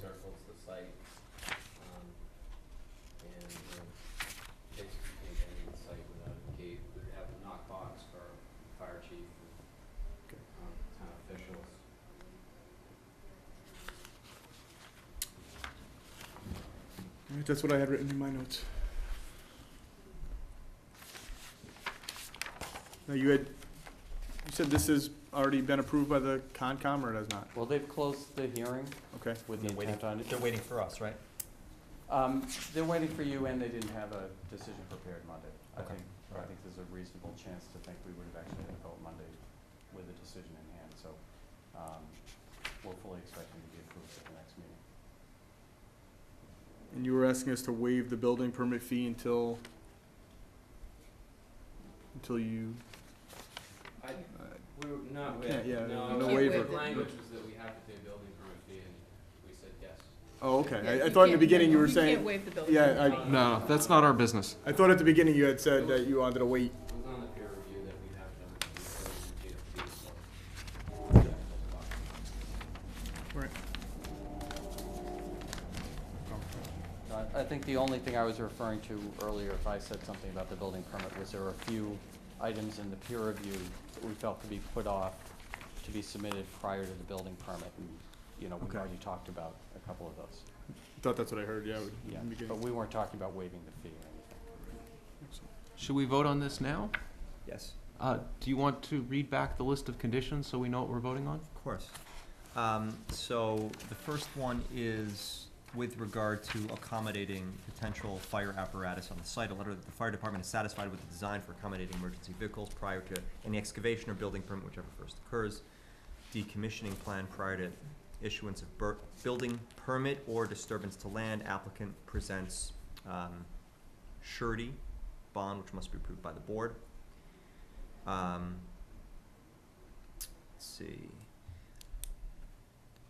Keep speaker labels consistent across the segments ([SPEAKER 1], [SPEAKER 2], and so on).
[SPEAKER 1] circles the site, um, and, um, you know, basically take any site without a gate, we have a knock box for fire chief and,
[SPEAKER 2] Okay.
[SPEAKER 1] um, town officials.
[SPEAKER 2] All right, that's what I had written in my notes. Now, you had, you said this has already been approved by the Concom, or it has not?
[SPEAKER 1] Well, they've closed the hearing
[SPEAKER 2] Okay,
[SPEAKER 1] with
[SPEAKER 3] the They're waiting-
[SPEAKER 1] on
[SPEAKER 3] They're waiting for us, right?
[SPEAKER 1] Um, they're waiting for you, and they didn't have a decision prepared Monday. I
[SPEAKER 3] Okay,
[SPEAKER 1] think, I
[SPEAKER 3] right.
[SPEAKER 1] think there's a reasonable chance to think we would have actually had a vote Monday with a decision in hand, so, um, we're fully expecting to be approved at the next meeting.
[SPEAKER 2] and you were asking us to waive the building permit fee until, until you,
[SPEAKER 1] I,
[SPEAKER 2] uh,
[SPEAKER 1] we were, not
[SPEAKER 2] You can't, with- yeah, no,
[SPEAKER 4] no waiver.
[SPEAKER 1] The
[SPEAKER 4] the
[SPEAKER 1] language
[SPEAKER 2] language
[SPEAKER 1] was that we have to pay a building permit fee, and we said yes.
[SPEAKER 2] oh, okay,
[SPEAKER 4] Yeah,
[SPEAKER 2] I, I
[SPEAKER 4] you
[SPEAKER 2] thought in the
[SPEAKER 4] can't-
[SPEAKER 2] beginning you were
[SPEAKER 4] You can't
[SPEAKER 2] saying,
[SPEAKER 4] waive the building.
[SPEAKER 2] yeah, I,
[SPEAKER 5] No, no, that's not our business.
[SPEAKER 2] I thought at the beginning you had said that you wanted to wait
[SPEAKER 1] It was on the peer review that we have done, we so.
[SPEAKER 2] Right.
[SPEAKER 1] I I think the only thing I was referring to earlier, if I said something about the building permit, was there were a few items in the peer review that we felt could be put off to be submitted prior to the building permit, and, you know, we've
[SPEAKER 2] Okay.
[SPEAKER 1] already talked about a couple of those.
[SPEAKER 2] Thought that's what I heard, yeah. would-
[SPEAKER 1] Yeah,
[SPEAKER 2] in the beginning.
[SPEAKER 1] but we weren't talking about waiving the fee or anything.
[SPEAKER 5] Should we vote on this now?
[SPEAKER 3] Yes.
[SPEAKER 5] Uh, do you want to read back the list of conditions so we know what we're voting on?
[SPEAKER 3] Of course. Um, so the first one is with regard to accommodating potential fire apparatus on the site. A letter that the fire department is satisfied with the design for accommodating emergency vehicles prior to any excavation or building permit, whichever first occurs. Decommissioning plan prior to issuance of bur- building permit or disturbance to land. Applicant presents, um, surety bond, which must be approved by the board. Um, let's see,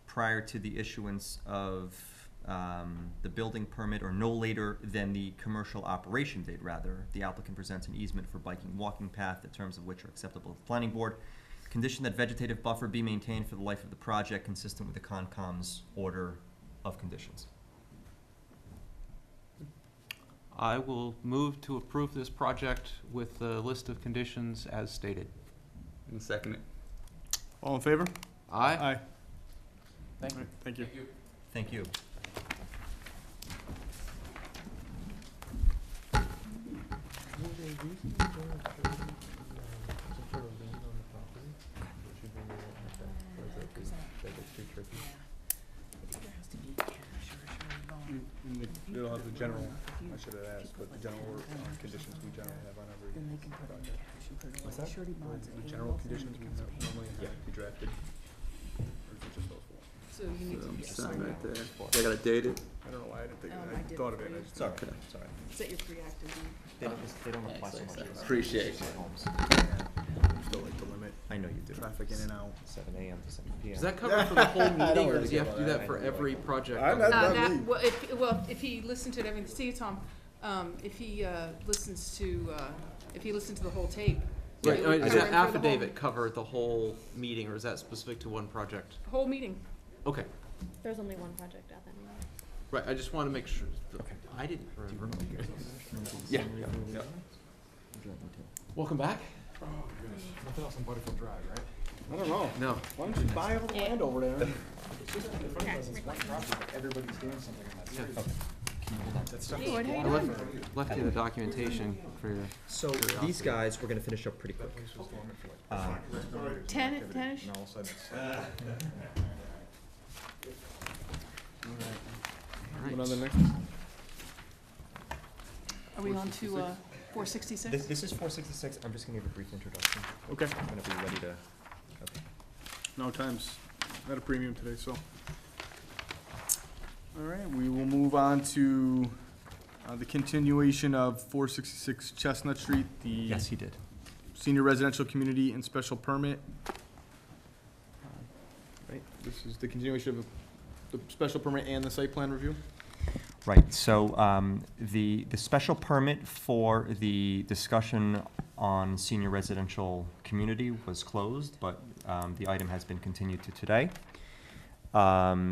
[SPEAKER 3] prior to the issuance of um, the building permit or no later than the commercial operation date, rather, the applicant presents an easement for biking walking path, the terms of which are acceptable to the planning board. Condition that vegetative buffer be maintained for the life of the project, consistent with the Concom's order of conditions.
[SPEAKER 5] I will move to approve this project with the list of conditions as stated.
[SPEAKER 6] And second it.
[SPEAKER 2] All in favor?
[SPEAKER 5] Aye?
[SPEAKER 2] Aye.
[SPEAKER 1] Thank
[SPEAKER 2] All
[SPEAKER 1] you.
[SPEAKER 2] right, Thank you.
[SPEAKER 3] Thank you.
[SPEAKER 2] And- and the- It'll have the general, I should have asked, but the general order on conditions we generally have on every project.
[SPEAKER 3] What's that?
[SPEAKER 2] The general conditions we have normally have be drafted. Or is it just those four?
[SPEAKER 4] So you need to
[SPEAKER 6] I'm
[SPEAKER 4] be
[SPEAKER 6] standing
[SPEAKER 4] signed
[SPEAKER 6] right
[SPEAKER 4] up.
[SPEAKER 6] there. I gotta date it.
[SPEAKER 2] I don't know why I didn't think,
[SPEAKER 4] Um,
[SPEAKER 2] of
[SPEAKER 4] I
[SPEAKER 2] that.
[SPEAKER 4] did
[SPEAKER 2] I thought of
[SPEAKER 4] it
[SPEAKER 2] it.
[SPEAKER 4] for
[SPEAKER 2] I
[SPEAKER 4] you.
[SPEAKER 2] just-
[SPEAKER 3] Sorry, sorry.
[SPEAKER 4] Is that your pre-active leave?
[SPEAKER 3] They don't, they don't apply so much.
[SPEAKER 6] Appreciate it.
[SPEAKER 3] Homes.
[SPEAKER 2] Still like to limit
[SPEAKER 3] I know you do.
[SPEAKER 2] traffic in and out.
[SPEAKER 3] Seven AM to seven PM.
[SPEAKER 5] Does that cover for the whole meeting, or
[SPEAKER 6] really
[SPEAKER 5] does he
[SPEAKER 6] care
[SPEAKER 5] have to do
[SPEAKER 6] about that.
[SPEAKER 5] that for every project?
[SPEAKER 2] I'm
[SPEAKER 5] on
[SPEAKER 2] not-
[SPEAKER 5] the-
[SPEAKER 2] Not
[SPEAKER 4] Uh, that,
[SPEAKER 2] leave.
[SPEAKER 4] well, if, well, if he listened to it, I mean, see, Tom, um, if he, uh, listens to, uh, if he listened to the whole tape. it
[SPEAKER 5] Right, I mean,
[SPEAKER 4] would
[SPEAKER 7] uh,
[SPEAKER 5] does
[SPEAKER 4] cover
[SPEAKER 5] that
[SPEAKER 4] him for the whole-
[SPEAKER 5] affidavit cover the whole meeting, or is that specific to one project?
[SPEAKER 4] Whole meeting.
[SPEAKER 5] Okay,
[SPEAKER 7] There's only one project out that moment.
[SPEAKER 5] right, I just wanna make sure, I didn't remember.
[SPEAKER 6] Yeah.
[SPEAKER 5] Welcome back.
[SPEAKER 2] I don't know.
[SPEAKER 5] No,
[SPEAKER 2] Why don't you buy all the
[SPEAKER 7] Yeah.
[SPEAKER 2] land over there?
[SPEAKER 7] Lord, how you
[SPEAKER 5] I left, left you the documentation for your.
[SPEAKER 3] So these guys, we're gonna finish up pretty quick. Um,
[SPEAKER 4] doing? Ten, ten-ish?
[SPEAKER 2] Going on to the next
[SPEAKER 4] Are we on to, uh, four sixty-six?
[SPEAKER 3] This, this is four sixty-six, I'm just gonna give a brief introduction,
[SPEAKER 2] Okay.
[SPEAKER 3] I'm gonna be ready to, okay.
[SPEAKER 2] No, time's at a premium today, so. All right, we will move on to uh, the continuation of 466 Chestnut Street, the
[SPEAKER 3] he did.
[SPEAKER 2] senior residential community and special permit. Right, this is the continuation of the special permit and the site plan review?
[SPEAKER 3] Right, so, um, the, the special permit for the discussion on senior residential community was closed, but, um, the item has been continued to today. Um,